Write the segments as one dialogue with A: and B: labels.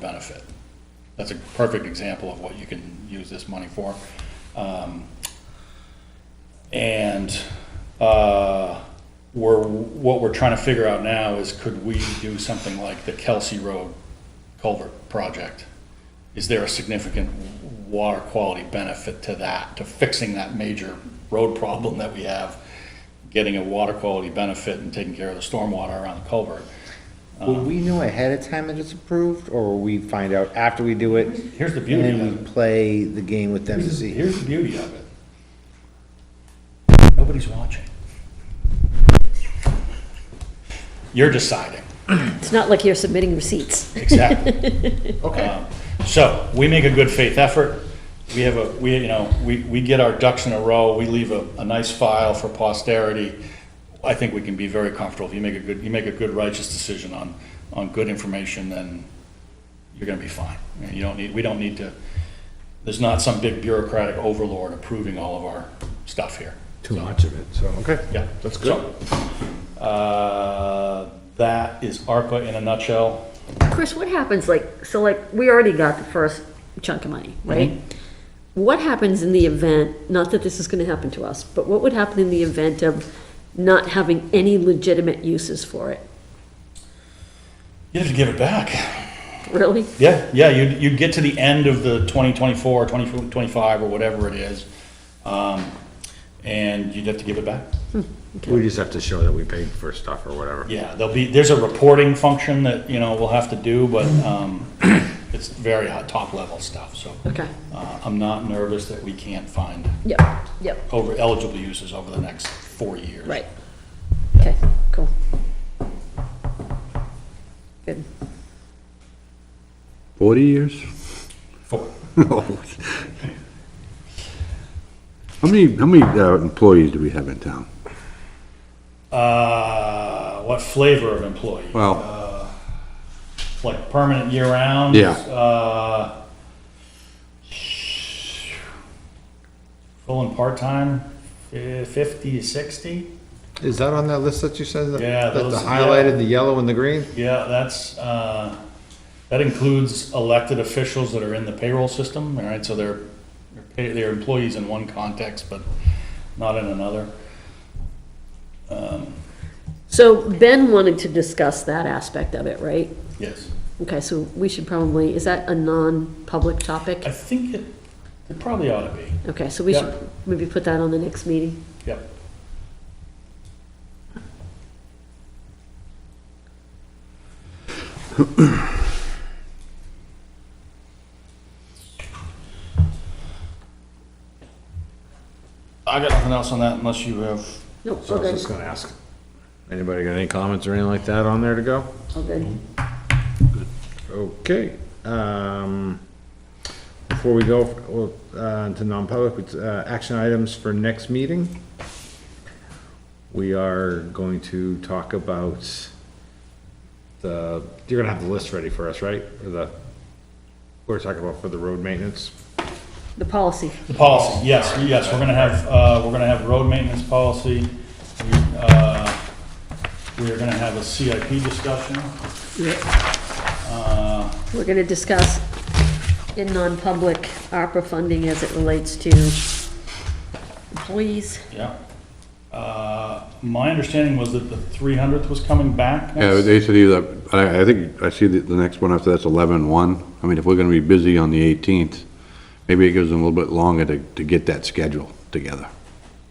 A: benefit. That's a perfect example of what you can use this money for. Um, And uh, we're, what we're trying to figure out now is could we do something like the Kelsey Road culvert project? Is there a significant water quality benefit to that, to fixing that major road problem that we have? Getting a water quality benefit and taking care of the stormwater around the culvert?
B: Will we know ahead of time that it's approved, or will we find out after we do it?
A: Here's the beauty
B: And
A: of
B: then
A: it.
B: we play the game with them to
A: Here's,
B: see.
A: here's the beauty of it. Nobody's watching. You're deciding,
C: It's not like you're submitting receipts.
A: exactly. Um,
B: Okay.
A: So, we make a good faith effort, we have a, we, you know, we, we get our ducks in a row, we leave a, a nice file for posterity. I think we can be very comfortable, if you make a good, you make a good righteous decision on, on good information, then you're gonna be fine. And you don't need, we don't need to, there's not some big bureaucratic overlord approving all of our stuff here.
D: too much of it, so, okay.
A: Yeah.
D: That's good.
A: So, uh, That is ARPA in a nutshell.
C: Chris, what happens, like, so like, we already got the first chunk of money, right? What happens in the event, not that this is gonna happen to us, but what would happen in the event of not having any legitimate uses for it?
A: You have to give it back.
C: Really?
A: Yeah, yeah, you'd, you'd get to the end of the 2024, 2025, or whatever it is, um, and you'd have to give it back.
D: We just have to show that we paid for stuff or whatever.
A: Yeah, there'll be, there's a reporting function that, you know, we'll have to do, but um, it's very hot, top-level stuff, so.
C: Okay.
A: uh, I'm not nervous that we can't find
C: Yep, yep,
A: over eligible uses over the next four years.
C: right. Okay, cool. Good.
D: Forty years?
A: Four.
E: How many, how many uh, employees do we have in town?
A: Uh, what flavor of employee?
E: Well,
A: like permanent year round.
E: Yeah.
A: Uh, full and part time, fifty to sixty.
B: Is that on that list that you said? that-
A: Yeah,
B: that the
A: those- yeah.
B: Highlighted, the yellow and the green?
A: Yeah, that's uh, that includes elected officials that are in the payroll system. All right, so they're they're, pay, they're employees in one context, but not in another.
C: So Ben wanted to discuss that aspect of it, right?
A: Yes,
C: Okay, so we should probably, is that a non-public topic?
A: I think it it probably ought to be.
C: Okay, so we
A: Yeah.
C: should maybe put that on the next meeting?
A: Yep. I got nothing else on that unless you have,
C: Nope,
D: So I was just gonna ask, anybody got any comments or anything like that on there to go?
C: all good.
D: Okay, um, before we go, well, uh, to non-public, it's, uh, action items for next meeting. We are going to talk about the, you're gonna have the list ready for us, right? Or the, we're talking about for the road maintenance.
C: The policy,
A: the policy, yes, yes, we're gonna have, uh, we're gonna have road maintenance policy. We, uh, we are gonna have a CIP discussion. Uh,
C: we're gonna discuss in non-public ARPA funding as it relates to employees.
A: Yeah. Uh, My understanding was that the 300th was coming back.
E: yeah,
A: next-
E: they said either, I, I think, I see the, the next one after that's eleven one. I mean, if we're gonna be busy on the eighteenth, maybe it gives them a little bit longer to, to get that schedule together.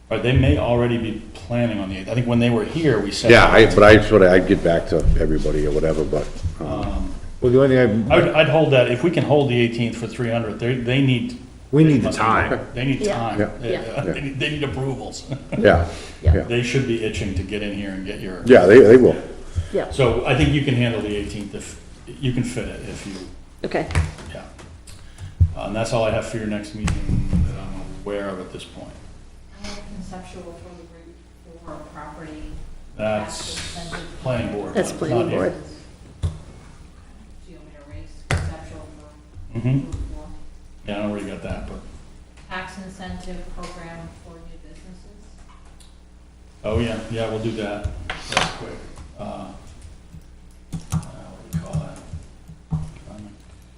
A: Or they may already be planning on the 8th. I think when they were here, we said.
E: Yeah, I, but I sort of, I'd get back to everybody or whatever, but, um,
D: Well, the only thing
A: I
D: I,
A: would- I'd hold that, if we can hold the 18th for 300, they, they need.
D: we need the
A: must-
D: time.
A: They need
C: Yeah.
A: time.
E: Yeah.
A: They-
C: Yeah.
A: They need- they need approvals.
E: yeah,
C: Yeah.
E: yeah.
A: They should be itching to get in here and get your.
E: Yeah, they, they will.
C: Yeah,
A: So I think you can handle the 18th if, you can fit it if you,
C: okay,
A: yeah. Uh, And that's all I have for your next meeting that I'm aware of at this point.
F: I have conceptual for the Route 4 property.
A: That's planning board.
C: that's
A: not-
C: planning
A: not you.
C: board.
F: Do you want me to erase conceptual for
A: Mhm.
F: Route 4?
A: Yeah, I already got that, but,
F: Tax incentive program for new businesses.
A: oh yeah, yeah, we'll do that. That's quick. Uh,